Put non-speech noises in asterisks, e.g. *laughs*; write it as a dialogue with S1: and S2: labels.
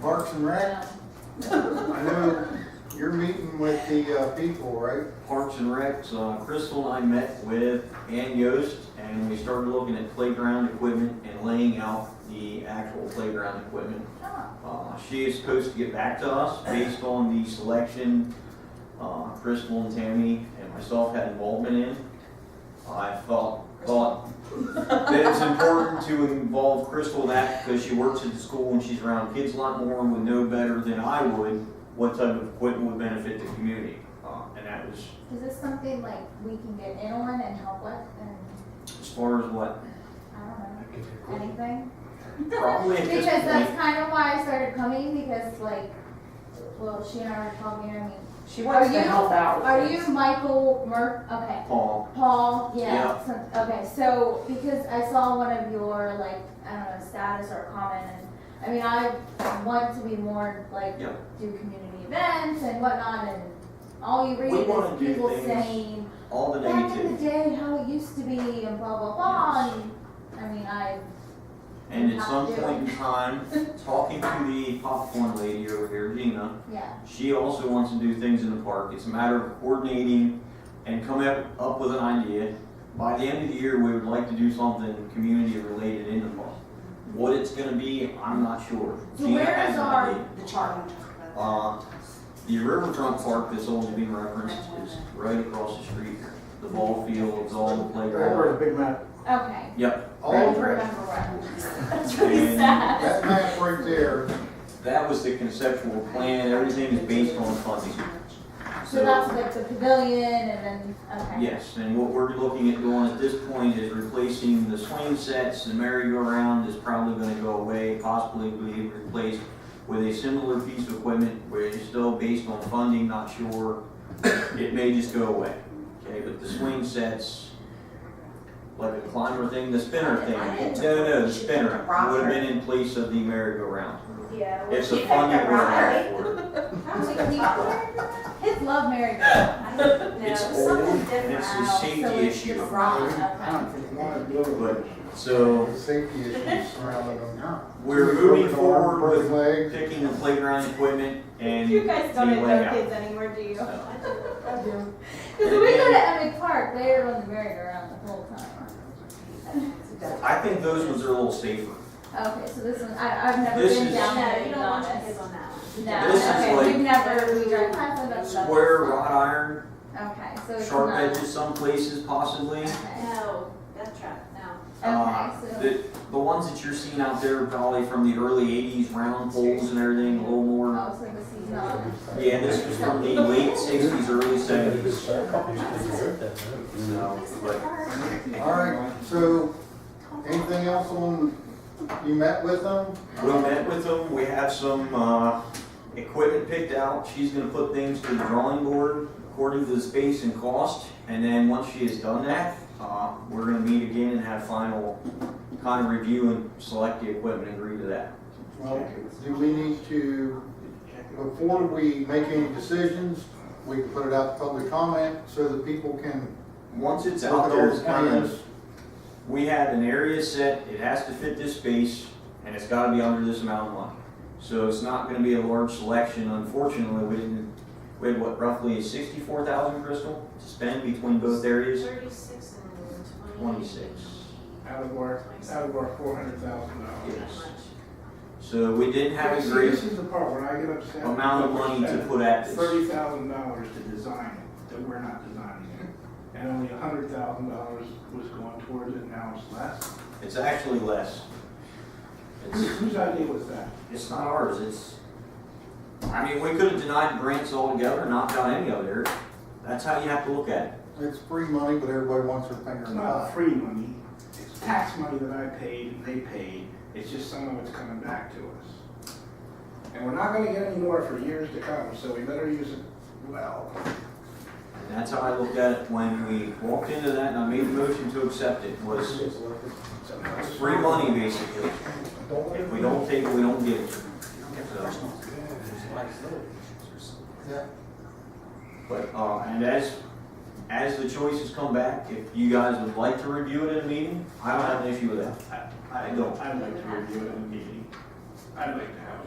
S1: Parks and Rec, I know you're meeting with the uh, people, right?
S2: Parks and Recs, uh, Crystal and I met with Ann Yost, and we started looking at playground equipment and laying out the actual playground equipment. Uh, She is supposed to get back to us based on the selection uh, Crystal and Tammy and myself had involvement in. I felt, thought that it's important to involve Crystal in that because she works at the school and she's around kids a lot more and would know better than I would what type of equipment would benefit the community. Uh, And that was
S3: Is this something like we can get in on and help with and,
S2: as far as what,
S3: I don't know, anything?
S2: probably at
S3: Because
S2: this
S3: that's
S2: point.
S3: kind of why I started coming, because like, well, she and I were talking, I mean,
S4: She wants
S3: Are
S4: to
S3: you-
S4: help out. with
S3: are
S4: things.
S3: you Michael Mur, okay,
S2: Paul,
S3: Paul, yeah,
S2: Yeah.
S3: some- okay, so, because I saw one of your like, I don't know, status or comment and, I mean, I want to be more like,
S2: Yeah.
S3: do community events and whatnot and all you read
S2: We wanna
S3: is
S2: do
S3: people
S2: things-
S3: saying,
S2: all the
S3: back in the
S2: negative.
S3: day how it used to be and blah blah blah and, I mean I
S2: And at some point in time,
S4: *laughs*
S2: talking to the popcorn lady over here, Gina,
S3: yeah
S2: She also wants to do things in the park. It's a matter of coordinating and coming up, up with an idea. By the end of the year, we would like to do something community related in the park. What it's gonna be, I'm not sure.
S4: So
S2: Gina
S4: where
S2: has
S4: is
S2: an
S4: our,
S2: idea.
S4: the charter?
S2: Uh, the Riverfront Park that's always been referenced is right across the street. The ball fields, all the playground.
S1: big map.
S3: okay
S2: Yep,
S3: I
S1: All,
S3: don't
S1: that
S3: remember what that's really
S2: And-
S3: sad
S1: map right there,
S2: that was the conceptual plan. Everything is based on funding.
S3: so that's like the pavilion and then okay
S2: Yes, and what we're looking at doing at this point is replacing the swing sets, the merry-go-round is probably gonna go away, possibly be replaced with a similar piece of equipment where it's still based on funding, not sure, it may just go away. Okay, but the swing sets, like the climber thing, the spinner thing,
S4: I didn't-
S2: no, no, the spinner,
S4: Rocker.
S2: would have been in place of the merry-go-round.
S5: Yeah.
S2: It's
S5: she
S2: a
S5: picked
S2: funding
S5: the
S2: we're
S5: rock.
S2: out for.
S3: I was like, "Do you remember that?" kids love Mary Go
S5: *laughs* No,
S2: It's
S5: something
S2: old, and it's a
S5: different.
S3: so
S2: safety
S3: it's
S2: issue,
S3: just wrong okay
S1: one blue,
S2: but, so,
S1: the safety issues surrounding them.
S2: we're moving forward with
S1: Broken leg,
S2: picking the playground equipment and.
S5: You guys don't
S2: the
S5: even know
S2: layout.
S5: kids anymore, do you?
S2: So,
S3: because we go to Emmett Park they were on the merry go round the whole time
S2: I think those ones are a little safer.
S3: okay so this one I, I've never
S2: This
S3: been
S2: is-
S3: down there
S5: No, you
S3: to
S5: don't
S3: be
S5: want your
S3: honest.
S5: kids on that one.
S3: no
S2: This is
S3: okay
S2: like-
S3: we've never we drive past them but-
S2: Square wrought iron,
S3: okay so it's
S2: sharp
S3: not
S2: edges some places possibly.
S3: okay.
S5: No, death trap, no.
S2: Uh,
S3: Okay, so-
S2: The, the ones that you're seeing out there are probably from the early eighties, round poles and everything, a little more.
S3: Oh, so the seasonal.
S2: Yeah, this was from the late sixties, early seventies, so, but
S1: all right, so, anything else on, you met with them?
S2: we met with them, we have some, uh, equipment picked out. She's gonna put things to the drawing board according to the space and cost. And then once she has done that, uh, we're gonna meet again and have final kind of review and select the equipment and agree to that.
S1: Well, do we need to, before we make any decisions, we can put it out to public comment so that people can
S2: Once it's
S1: look
S2: out
S1: at
S2: there,
S1: those
S2: it's kind of-
S1: plans?
S2: we have an area set, it has to fit this space, and it's gotta be under this amount of money. So it's not gonna be a large selection, unfortunately, we didn't, we had what, roughly sixty-four thousand, Crystal, to spend between both areas?
S5: Thirty-six and
S2: Twenty-six,
S6: Out of our, out of our four hundred thousand dollars.
S2: yes. So we didn't have a great
S6: This is the part where I get upset.
S2: amount of money to put at this.
S6: Thirty thousand dollars to design it, that we're not designing it. And only a hundred thousand dollars was going towards it, now it's less.
S2: It's actually less.
S6: Whose,
S2: It's,
S6: whose idea was that?
S2: it's not ours, it's, I mean, we could have denied grants altogether, knocked out any of it. That's how you have to look at it.
S1: It's free money, but everybody wants their finger
S6: It's
S1: in the pie.
S6: not free money, it's tax money that I paid and they paid, it's just some of it's coming back to us. And we're not gonna get any more for years to come, so we better use it well.
S2: And that's how I looked at it when we walked into that and I made the motion to accept it, was
S6: Sometimes-
S2: free money basically. If we don't take it, we don't get it. So,
S1: Yeah.
S2: But, uh, and as, as the choices come back, if you guys would like to review it in a meeting, I don't have an issue with that.
S6: I don't, I'd like to review it in a meeting. I'd like to have